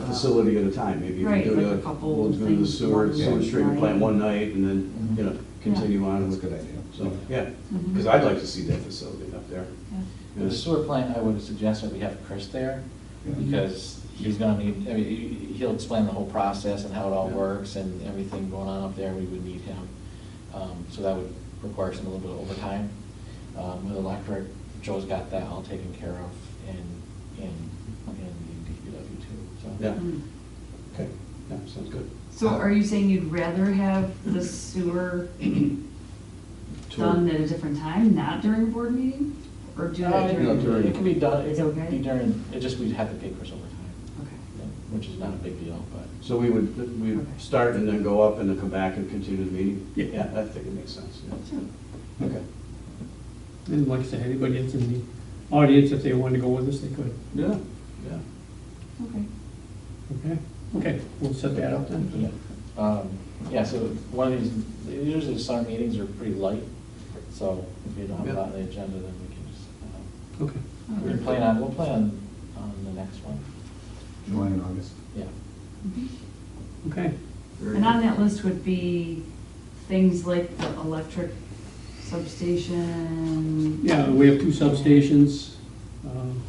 facility at a time, maybe you can Right, do like a it, couple we'll do the things, sewer, one sewer treatment plant night. one night, and then, you know, continue on That's a with good it. idea. So, yeah, Mhm. because I'd like to see that facility up there. Yeah. For The sewer plant, I would suggest that we have Chris there, Yeah. because he's gonna need, I mean, he- he'll explain the whole process and how it all Yeah. works and everything going on up there, we would need him. Um, So that would require some, a little bit of overtime. Um, With electric, Joe's got that all taken care of in, in, in the DPW too, so. Yeah, Mm. okay, yeah, sounds good. So are you saying you'd rather have the sewer done at a different time, not during a board meeting? Or do Uh, that it- during? No, during- It can be done, it It's can be okay? during, it just, we'd have to pay Chris overtime, Okay. which is not a big deal, but. So we would, we would start and then go up and then come back and continue the meeting? Yeah, I think it makes sense, yeah. Okay. And like I said, anybody that's in the audience, if they wanted to go with us, they could, Yeah, yeah. Okay. okay? Okay, we'll set that up then. Yeah. Um, Yeah, so one of these, usually the summer meetings are pretty light, so if you don't have a lot on the agenda, then we can just, uh, Okay. All we right. can plan on, we'll plan on, on the next one, July and August. yeah. Mhm. Okay, Very And on good. that list would be things like the electric substation. yeah, we have two substations, um,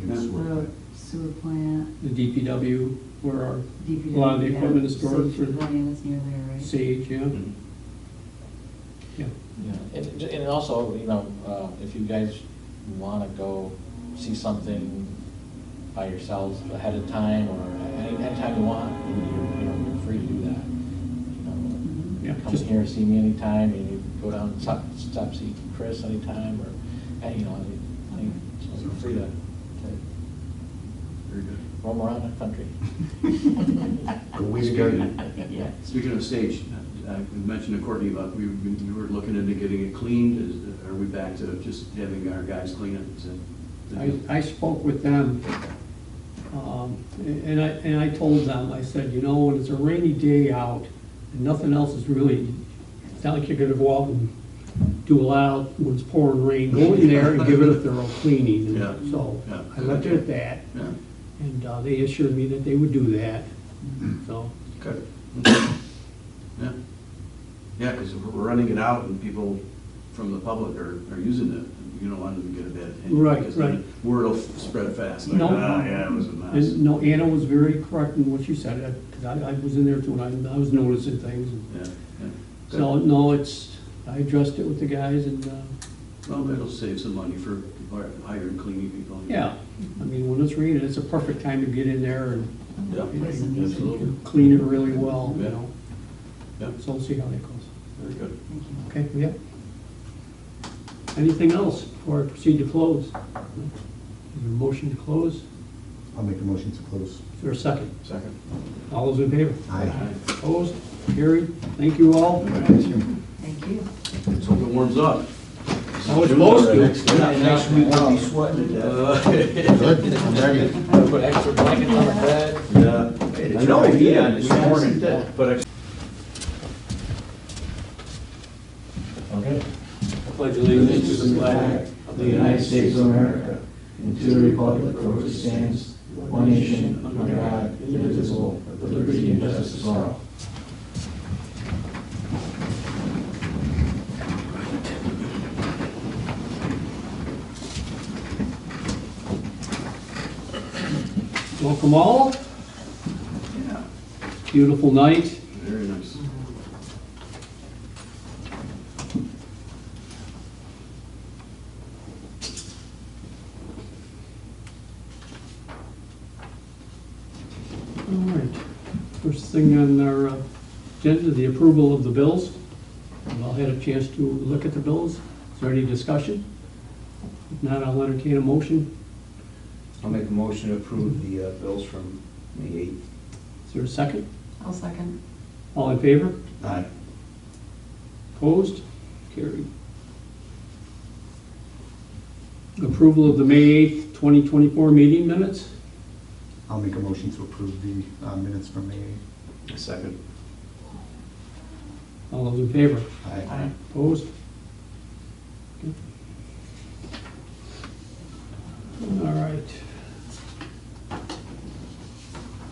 Maybe Yeah. sewer The plant. sewer plant, the DPW, where our DPW. A lot of the yeah, equipment is stored safety for- plan that's near there, right? Sage, yeah, Mhm. yeah. Yeah, And, and also, you know, uh, if you guys wanna go see something by yourselves ahead of time, or any, anytime you want, you know, you're, you're free to do that. You know, Mhm. Yeah, come just- here, see me anytime, and you go down, and stop, stop, see Chris anytime, or, and, you know, I think, so you're free to, to Very good. roam around the country. Go weed garden. Yeah. Speaking of stage, uh, we mentioned to Courtney about, we, we were looking into getting it cleaned, is, are we back to just having our guys clean it? Is I, it? I spoke with them, um, and I, and I told them, I said, you know, when it's a rainy day out, and nothing else is really, it's not like you're gonna go out and do a lot out when it's pouring rain, go in there and give it a thorough cleaning. Yeah. So, Yeah. I left it at that, Yeah, and uh, they assured me that they would do that, so, good. Yeah, yeah, because we're running it out and people from the public are, are using it, you don't want them to get a bad opinion. Right, because then right. Word will spread fast, like, No. ah, yeah, it was a mess. and no, Anna was very correct in what she said, because I, I was in there too, and I, I was noticing things, and Yeah, yeah. Good. so, no, it's, I addressed it with the guys, and, uh, Well, that'll save some money for hiring cleaning people. Yeah, I mean, when it's raining, it's a perfect time to get in there and Yeah, Nice and easy. absolutely. clean it really well, you Yeah. know? Yeah. So we'll see how that goes. Very good. Thank you. Okay, yeah. Anything else before I proceed to close? Is there a motion to close? Is I'll make a motion to close. there a second? Second. All those in favor? Aye. Opposed? Carried? Thank you all. Thank you. Let's hope it warms up. Oh, it's supposed to. Next week we'll be sweating to death. Uh, Good, I'm ready. Put extra blankets on the bed. Yeah. I know, yeah, this we had morning. that, But I Okay. Pledge Allegiance to the flag of the United States of America and to the republic for which it stands, one nation, under God, indivisible, with liberty and justice for all. Welcome all. Yeah. Beautiful night. Very nice. All right. First thing on our uh, agenda, the approval of the bills. We've all had a chance to look at the bills. Is there any discussion? If not, I'll entertain a motion. I'll make a motion to approve the uh, bills from May eighth. Is there a second? I'll second. All in favor? Aye. Opposed? Carried. Approval of the May 8th, 2024 meeting minutes. I'll make a motion to approve the uh, minutes from May. eighth. Second. All those in favor? Aye. Opposed? Okay. All right.